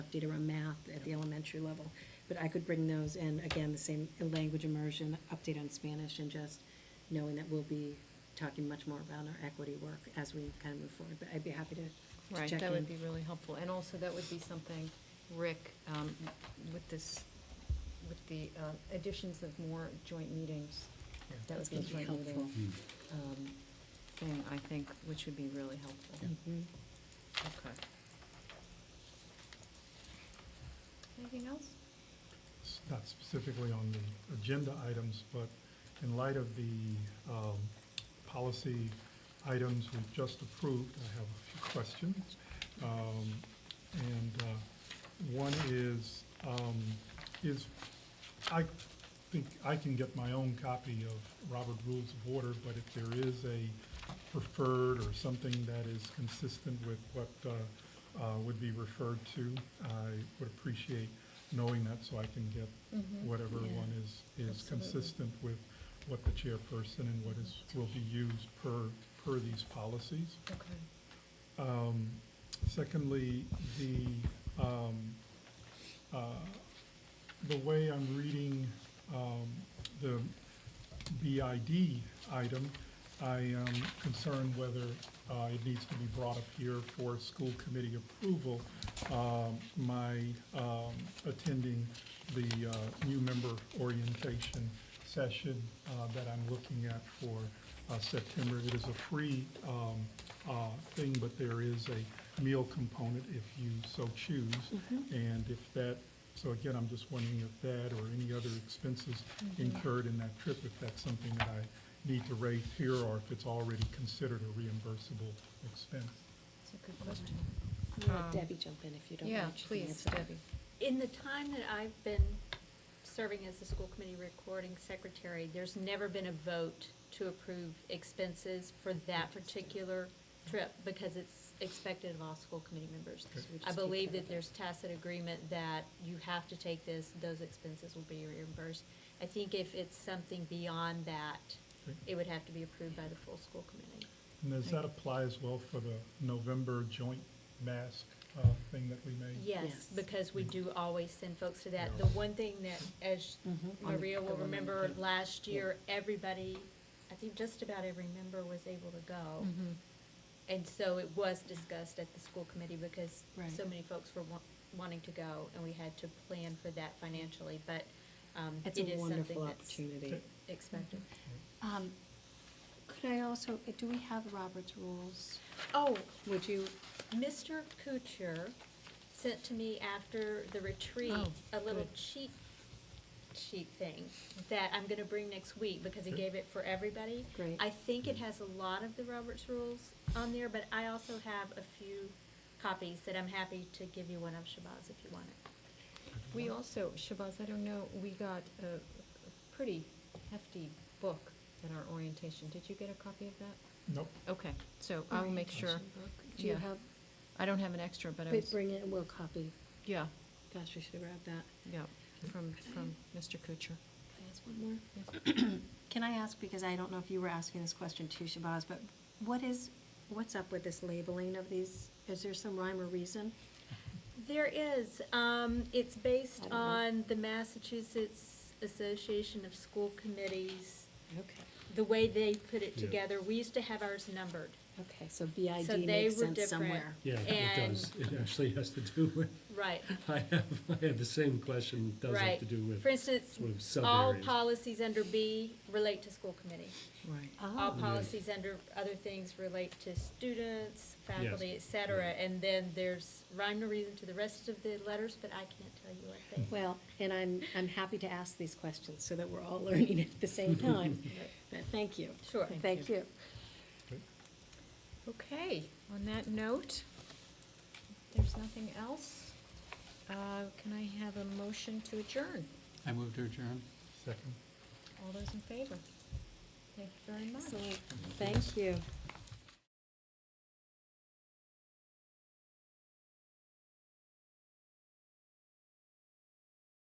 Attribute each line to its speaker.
Speaker 1: update around math at the elementary level. But I could bring those in, again, the same language immersion, update on Spanish, and just knowing that we'll be talking much more about our equity work as we kind of move forward. But I'd be happy to- to
Speaker 2: Right,
Speaker 1: check in.
Speaker 2: that would be really helpful. And also, that would be something, Rick, um, with this, with the um, additions of more joint meetings,
Speaker 3: Yeah.
Speaker 2: that would
Speaker 1: That's
Speaker 2: be a
Speaker 1: gonna be
Speaker 2: joint meeting
Speaker 1: helpful.
Speaker 2: um, thing, I think, which would be really helpful.
Speaker 1: Mhm.
Speaker 2: Okay. Anything else?
Speaker 3: s- not specifically on the agenda items, but in light of the um, policy items we've just approved, I have a few questions. Um, And uh, one is, um, is, I think I can get my own copy of Robert Rules of Order, but if there is a preferred or something that is consistent with what uh, uh, would be referred to, I would appreciate knowing that so I can get whatever
Speaker 1: Yeah.
Speaker 3: one is, is
Speaker 2: Mm, Absolutely.
Speaker 3: consistent with what the chairperson and what is, will be used per, per these policies.
Speaker 2: Okay.
Speaker 3: Um, Secondly, the, um, uh, the way I'm reading um, the BID item, I am concerned whether uh, it needs to be brought up here for school committee approval. Um, My um, attending the uh, new member orientation session uh, that I'm looking at for uh, September. It is a free um, uh, thing, but there is a meal component if you so choose.
Speaker 4: Mm-hmm.
Speaker 3: And if that, so again, I'm just wondering if that or any other expenses incurred in that trip, if that's something that I need to raise here, or if it's already considered a reimbursable expense.
Speaker 2: That's a good question.
Speaker 1: I'm gonna
Speaker 2: Um,
Speaker 1: let Debbie jump in if you don't
Speaker 2: Yeah,
Speaker 1: mind. She can
Speaker 2: please,
Speaker 1: answer that.
Speaker 2: Debbie.
Speaker 5: In the time that I've been serving as the school committee recording secretary, there's never been a vote to approve expenses for that particular trip because it's expected of all school committee members.
Speaker 1: So we just
Speaker 5: I
Speaker 1: keep
Speaker 5: believe
Speaker 1: it
Speaker 5: that there's tacit agreement that you have to take this, those expenses will be reimbursed. I think if it's something beyond that,
Speaker 3: Okay.
Speaker 5: it would have to be approved by the full school committee.
Speaker 3: And does that apply as well for the November joint mask uh, thing that we made?
Speaker 1: Yes.
Speaker 5: Yes, because we
Speaker 1: Mm-hmm.
Speaker 5: do always send folks to that.
Speaker 3: Yeah.
Speaker 5: The one thing that, as
Speaker 2: Mm-hmm.
Speaker 1: Mhm.
Speaker 5: Maria will
Speaker 1: The women,
Speaker 5: remember,
Speaker 1: yeah.
Speaker 5: last year, everybody, I think just about every member was able to
Speaker 1: Oh.
Speaker 5: go.
Speaker 1: Mm.
Speaker 2: Mm-hmm.
Speaker 5: And so it was discussed at the school committee because
Speaker 1: Right.
Speaker 5: so many folks were wa- wanting to go and we had to plan for that financially, but um,
Speaker 1: It's
Speaker 5: it is
Speaker 1: a
Speaker 5: something
Speaker 1: wonderful
Speaker 5: that's
Speaker 1: opportunity. Mm-hmm.
Speaker 5: expected.
Speaker 4: Um, Could I also, uh, do we have Robert's rules?
Speaker 5: Oh,
Speaker 4: Would you,
Speaker 5: Mr. Kuchar sent to me after the retreat
Speaker 2: Oh,
Speaker 5: a little
Speaker 2: good.
Speaker 5: cheat sheet thing that I'm gonna bring next week because he
Speaker 3: Okay.
Speaker 5: gave it for everybody.
Speaker 1: Great.
Speaker 5: I think it has a lot of the Roberts rules on there, but I also have a few copies that I'm happy to give you one of Shabazz if you want it.
Speaker 2: We also, Shabazz, I don't know, we got a a pretty hefty book at our orientation. Did you get a copy of that?
Speaker 3: Nope.
Speaker 2: Okay, so I'll make sure.
Speaker 1: Do you
Speaker 2: Yeah.
Speaker 1: have,
Speaker 2: I don't have an extra, but I
Speaker 1: we
Speaker 2: was,
Speaker 1: bring it and we'll copy.
Speaker 2: yeah,
Speaker 1: Gosh, we should have grabbed that.
Speaker 2: yeah, from, from Mr. Kuchar.
Speaker 1: Can I ask one more?
Speaker 4: can I ask, because I don't know if you were asking this question too, Shabazz, but what is,
Speaker 1: What's up with this labeling of these? Is there some rhyme or reason?
Speaker 5: There is, um, it's
Speaker 1: I
Speaker 5: based
Speaker 1: don't know.
Speaker 5: on the Massachusetts Association of School Committees,
Speaker 1: Okay.
Speaker 5: the way they put it
Speaker 6: Yeah.
Speaker 5: together. We used to have ours numbered.
Speaker 1: Okay, so
Speaker 5: So
Speaker 1: BID
Speaker 5: they
Speaker 1: makes
Speaker 5: were
Speaker 1: sense
Speaker 5: different.
Speaker 1: somewhere.
Speaker 6: Yeah, it
Speaker 5: And-
Speaker 6: does. It actually has to do with,
Speaker 5: Right.
Speaker 6: I have, I have the same question. It Does
Speaker 5: Right.
Speaker 6: have to do with
Speaker 5: For instance,
Speaker 6: sort of
Speaker 5: all
Speaker 6: sub-areas.
Speaker 5: policies under B relate to school committee.
Speaker 2: Right.
Speaker 5: All
Speaker 1: Oh,
Speaker 5: policies under other things relate to students, faculty, et
Speaker 6: Yes.
Speaker 5: cetera.
Speaker 6: Right.
Speaker 5: And then there's rhyme or reason to the rest of the letters, but I can't tell you what they.
Speaker 1: well, and I'm, I'm happy to ask these questions so that we're all learning at the same time. But thank you.
Speaker 5: Sure.
Speaker 1: Thank you.
Speaker 2: Okay, on that note, if there's nothing else, uh, can I have a motion to adjourn?
Speaker 7: I move to adjourn.
Speaker 3: Second.
Speaker 2: All those in favor? Thank you very much.
Speaker 1: Excellent. Thank you.